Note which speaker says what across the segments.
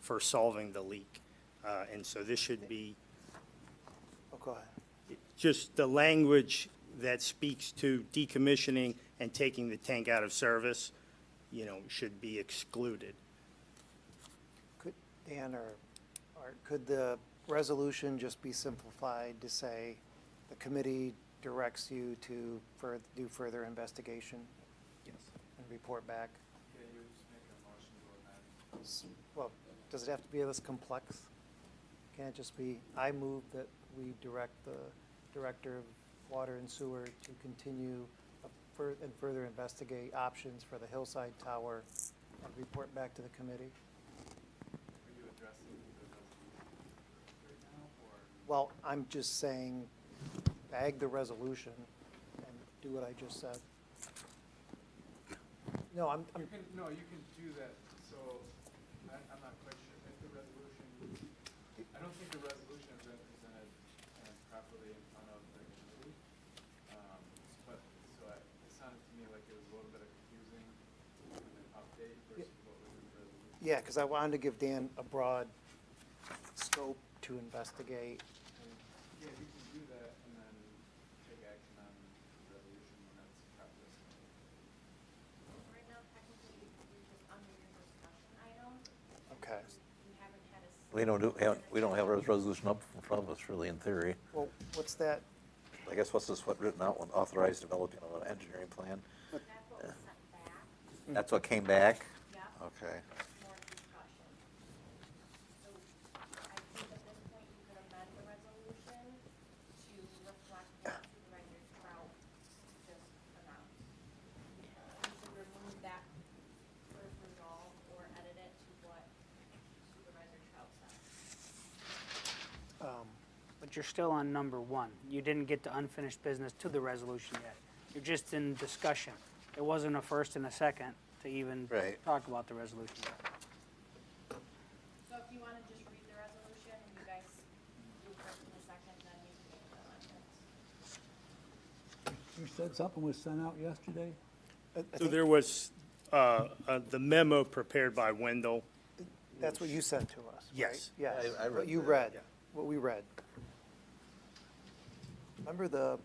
Speaker 1: for solving the leak. Uh, And so this should be
Speaker 2: Oh, go ahead.
Speaker 1: just the language that speaks to decommissioning and taking the tank out of service, you know, should be excluded.
Speaker 2: Could, Dan or Art, could the resolution just be simplified to say the committee directs you to fur, do further investigation? Yes. And report back? S- Well, does it have to be this complex? Can it just be, I move that we direct the Director of Water and Sewer to continue a fur- and further investigate options for the Hillside Tower and report back to the committee? Well, I'm just saying, bag the resolution and do what I just said. No, I'm,
Speaker 3: You
Speaker 2: I'm,
Speaker 3: can, no, you can do that, so I, I'm not quite sure if the resolution, I don't think the resolution has been presented uh, properly in front of the committee. Um, But, so I- it sounded to me like it was a little bit of confusing, with an update versus what was in the resolution.
Speaker 2: yeah, because I wanted to give Dan a broad scope to investigate.
Speaker 3: And, Yeah, you can do that and then take action on the resolution when that's properly. submitted.
Speaker 4: Right now, technically, we're just under your discussion item.
Speaker 2: Okay.
Speaker 4: We haven't had a.
Speaker 5: We don't do, have- we don't have a resolution up in front of us really in theory.
Speaker 2: Well, what's that?
Speaker 5: I guess what's this, what written out, when authorized developing of an engineering plan?
Speaker 4: That's what was
Speaker 2: Hmm.
Speaker 4: sent back,
Speaker 5: That's what came back?
Speaker 4: Yeah.
Speaker 5: Okay.
Speaker 4: more discussion. So I think at this point, you could amend the resolution to reflect what Supervisor Trout just announced. You should remove that first resolve or edit it to what Supervisor Trout said.
Speaker 2: Um,
Speaker 6: But you're still on number one. You didn't get to unfinished business to the resolution yet. You're just in discussion. It wasn't a first and a second to even
Speaker 5: Right.
Speaker 6: talk about the resolution. yet.
Speaker 4: So if you want to just read the resolution and you guys do first and the second, then you can make the amendments.
Speaker 7: You said something was sent out yesterday?
Speaker 2: I- I
Speaker 1: So
Speaker 2: think
Speaker 1: there was, uh, uh, the memo prepared by Wendell,
Speaker 2: That's what you sent to us, right?
Speaker 1: Yes.
Speaker 2: Yes,
Speaker 5: I- I read
Speaker 2: what you
Speaker 5: that,
Speaker 2: read,
Speaker 1: yeah.
Speaker 2: what we read. Remember the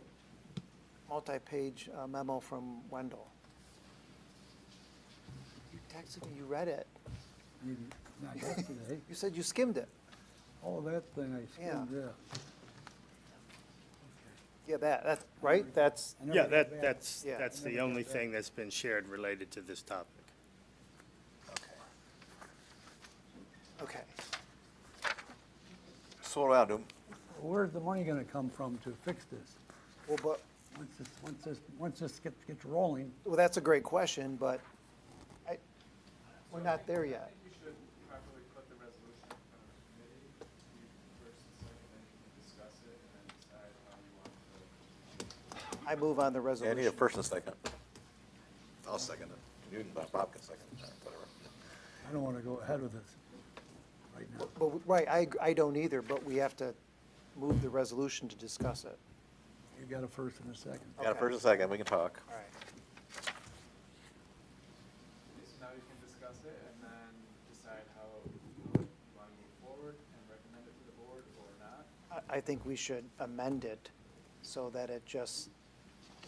Speaker 2: multi-page uh, memo from Wendell? You texted me, you read it.
Speaker 7: Maybe Not yesterday.
Speaker 2: You said you skimmed it.
Speaker 7: Oh, that thing I skimmed,
Speaker 2: Yeah.
Speaker 7: yeah.
Speaker 2: Yeah, that, that's, right? That's,
Speaker 7: I never
Speaker 1: yeah,
Speaker 7: got
Speaker 1: that,
Speaker 7: back.
Speaker 1: that's,
Speaker 2: Yeah.
Speaker 1: that's the only thing that's been shared related to this topic.
Speaker 2: okay.
Speaker 5: So what do I do?
Speaker 7: Where's the money gonna come from to fix this?
Speaker 2: Well, but,
Speaker 7: Once this, once this, once this gets, gets rolling,
Speaker 2: well, that's a great question, but I, we're not there
Speaker 3: I
Speaker 2: yet.
Speaker 3: think you should properly put the resolution in front of the committee, you first and second, then you can discuss it and then decide how you want to.
Speaker 2: I move on the
Speaker 5: Yeah, I
Speaker 2: resolution.
Speaker 5: need a first and second. I'll second it. You and Bob- Bob can second it, whatever.
Speaker 7: I don't wanna go ahead with this right now.
Speaker 2: But, we- right, I, I don't either, but we have to move the resolution to discuss it.
Speaker 7: You got a first and a second.
Speaker 5: Got a first and second, we can talk.
Speaker 2: All right.
Speaker 3: So now you can discuss it and then decide how you want to move forward and recommend it to the board or not.
Speaker 2: I, I think we should amend it so that it just,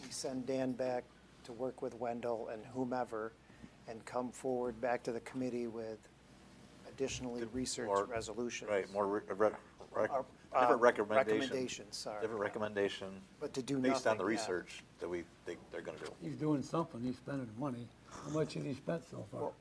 Speaker 2: we send Dan back to work with Wendell and whomever and come forward back to the committee with additionally
Speaker 5: More-
Speaker 2: researched resolutions.
Speaker 5: Right, more, re- re- rec-
Speaker 2: Or, uh,
Speaker 5: different recommendation.
Speaker 2: recommendations, sorry.
Speaker 5: Different recommendation.
Speaker 2: But to do
Speaker 5: Based on the
Speaker 2: nothing, yeah.
Speaker 5: research that we think they're gonna do.
Speaker 7: He's doing something, he's spending money. How much has he spent so far?
Speaker 2: Well-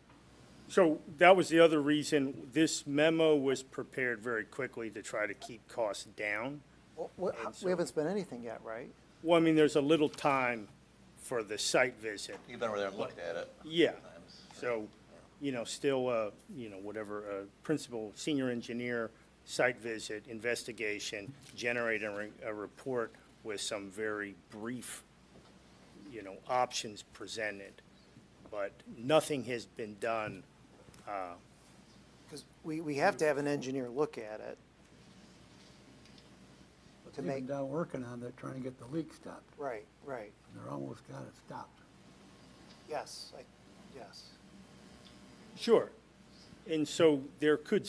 Speaker 1: So that was the other reason, this memo was prepared very quickly to try to keep costs down.
Speaker 2: Well, we-
Speaker 1: And so-
Speaker 2: We haven't spent anything yet, right?
Speaker 1: Well, I mean, there's a little time for the site visit,
Speaker 5: You've been over there and looked at it.
Speaker 1: Yeah,
Speaker 5: times.
Speaker 1: so, you know, still, uh, you know, whatever, uh, principal, senior engineer, site visit, investigation, generate a, re- a report with some very brief, you know, options presented. But nothing has been done,
Speaker 2: Because we, we have to have an engineer look at it.
Speaker 7: But
Speaker 2: to
Speaker 7: They've been
Speaker 2: make-
Speaker 7: down working on that, trying to get the leak stopped,
Speaker 2: Right, right.
Speaker 7: and they're almost got it stopped.
Speaker 2: Yes, I, yes.
Speaker 1: sure. And so there could